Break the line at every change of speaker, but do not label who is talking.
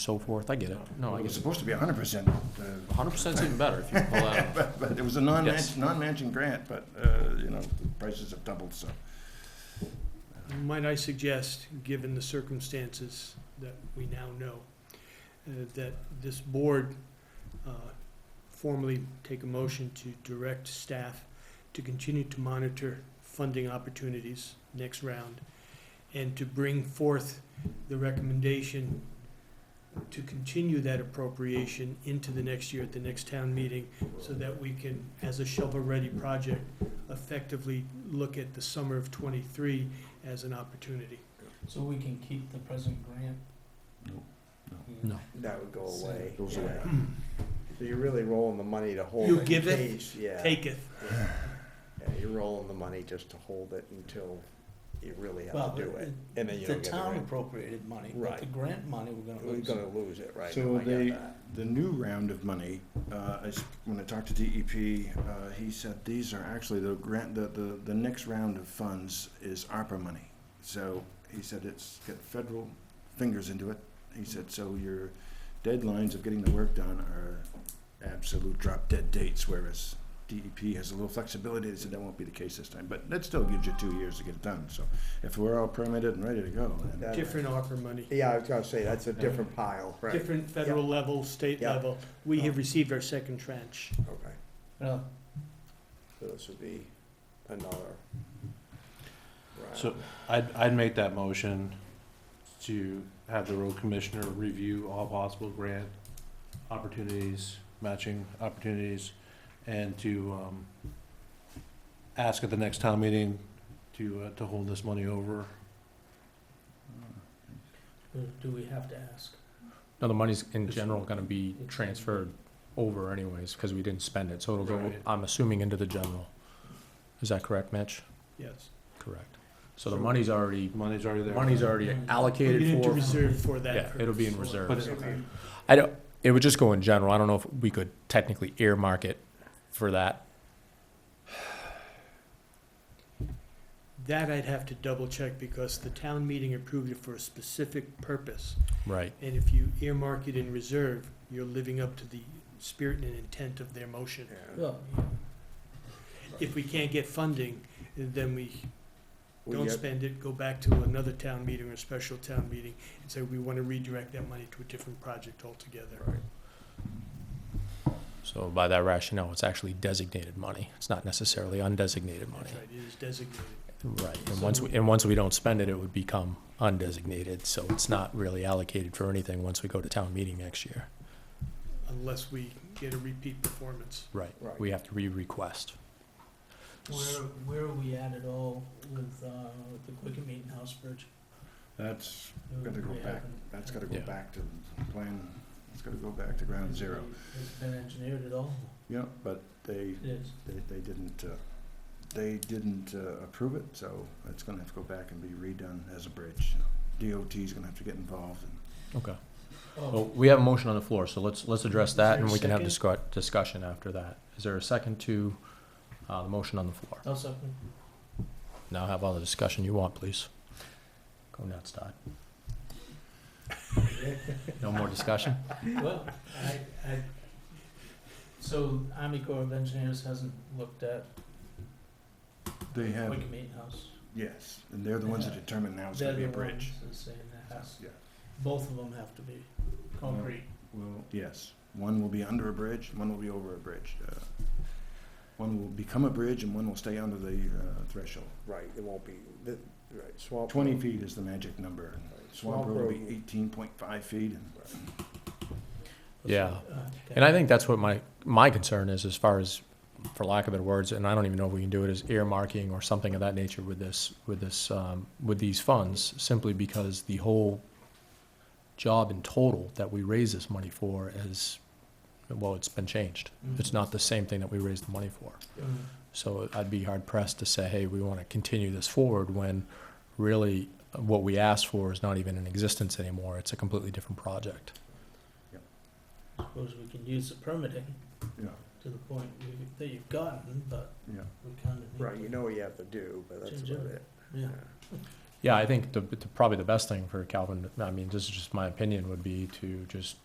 so forth, I get it. No, I
It was
get it.
supposed to be hundred percent, uh,
Hundred percent's even better if you pull out.
but, but it was a
Yes.
non-match, non-matching grant, but, uh, you know, the prices have doubled, so.
Might I suggest, given the circumstances that we now know, uh, that this board uh, formally take a motion to direct staff to continue to monitor funding opportunities next round and to bring forth the recommendation to continue that appropriation into the next year at the next town meeting so that we can, as a shovel-ready project, effectively look at the summer of twenty-three as an opportunity.
So we can keep the present grant?
No, no.
No.
That would go
So-
away.
Goes
yeah.
away.
So you're really rolling the money to hold
You
it in
give it,
case, yeah.
Taketh,
Yeah, You're rolling the money just to hold it until you really
Well,
have to do it. And then you
the
don't get the
town
grant.
appropriated money, but
Right.
the grant money we're gonna
We're
lose.
gonna lose it, right?
So
now, I get
they-
that.
The new round of money, uh, I s when I talked to DEP, uh, he said these are actually the grant, the, the, the next round of funds is ARPA money. So he said it's got federal fingers into it. He said, so your deadlines of getting the work done are absolute drop dead dates, whereas DEP has a little flexibility. They said that won't be the case this time, but that still gives you two years to get it done. So if we're all permitted and ready to go, then
That-
different ARPA money,
Yeah, I was gonna say, that's a different pile, right?
different federal level, state
Yeah.
level. We have received our second tranche.
Okay,
Well,
so this would be another. round.
So- I'd, I'd make that motion to have the road commissioner review all possible grant opportunities, matching opportunities, and to, um, ask at the next town meeting to, uh, to hold this money over.
do- do we have to ask?
No, the money's in
It's-
general gonna be
it's-
transferred over anyways, because we didn't spend it, so it'll go,
Right.
I'm assuming, into the general. Is that correct, Mitch?
Yes.
Correct. So the money's already,
Money's already there.
money's already
Money.
We get
allocated
into
for,
reserve for that
yeah, it'll be in
purpose.
reserve.
But it's,
I don't, it would just go in general, I don't know if we could technically earmark it for that.
That I'd have to double check because the town meeting approved it for a specific purpose.
Right.
And if you earmark it in reserve, you're living up to the spirit and intent of their motion.
Yeah.
Well,
If we can't get funding, then we
We
don't
get-
spend it, go back to another town meeting or a special town meeting and say, we want to redirect that money to a different project altogether.
Right.
So by that rationale, it's actually designated money, it's not necessarily undesignated money.
That's right, it is designated.
Right, and
So-
once, we- and once we don't spend it, it would become undesignated, so it's not really allocated for anything once we go to town meeting next year.
unless we get a repeat performance.
Right,
Right.
we have to re-request.
where, where are we at at all with, uh, with the Quicken Meeting House Bridge?
that's, Gotta go
We
back.
haven't-
that's gotta go
Yeah.
back to plan, it's gotta go back to ground zero.
Has it been engineered at all?
Yeah, but they,
It is.
they, they didn't, uh, they didn't uh, approve it, so it's gonna have to go back and be redone as a bridge. DOT's gonna have to get involved and
Okay. Well,
Oh,
we have a motion on the floor, so let's, let's address
Is there
that,
a
and we can have
second?
discu- discussion after that. Is there a second to, uh, the motion on the floor?
I'll second.
Now have all the discussion you want, please. Go nuts, Todd. No more discussion?
Well, I, I, so Army Corps of Engineers hasn't looked at
they have,
Quicken Meeting House.
yes, and they're the ones that determine now it's gonna be
They're
a
the
bridge.
ones that say it has-
Yeah,
Both of them have to be concrete.
well, yes, one will be under a bridge, one will be over a bridge. Uh, One will become a bridge and one will stay under the uh, threshold.
Right, it won't be, the, right, swamp.
Twenty feet is the magic number.
Right,
Swamp Road will be eighteen point five feet and
Yeah.
Uh,
And I think that's what my, my concern is, as far as, for lack of better words, and I don't even know if we can do it, is earmarking or something of that nature with this, with this, um, with these funds, simply because the whole job in total that we raise this money for is, well, it's been changed.
Mm-hmm.
Mm-hmm.
It's not the same thing that we raised the money for.
Mm.
So I'd be hard pressed to say, hey, we want to continue this forward when really what we asked for is not even in existence anymore. It's a completely different project.
Suppose we can use the permitting
Yeah,
to the point you- that you've gotten, but
yeah.
we kind of need to.
Right, you know what you have to do, but that's
Change
about
it.
it.
Yeah.
Yeah, I think the, the- probably the best thing for Calvin, I mean, this is just my opinion, would be to just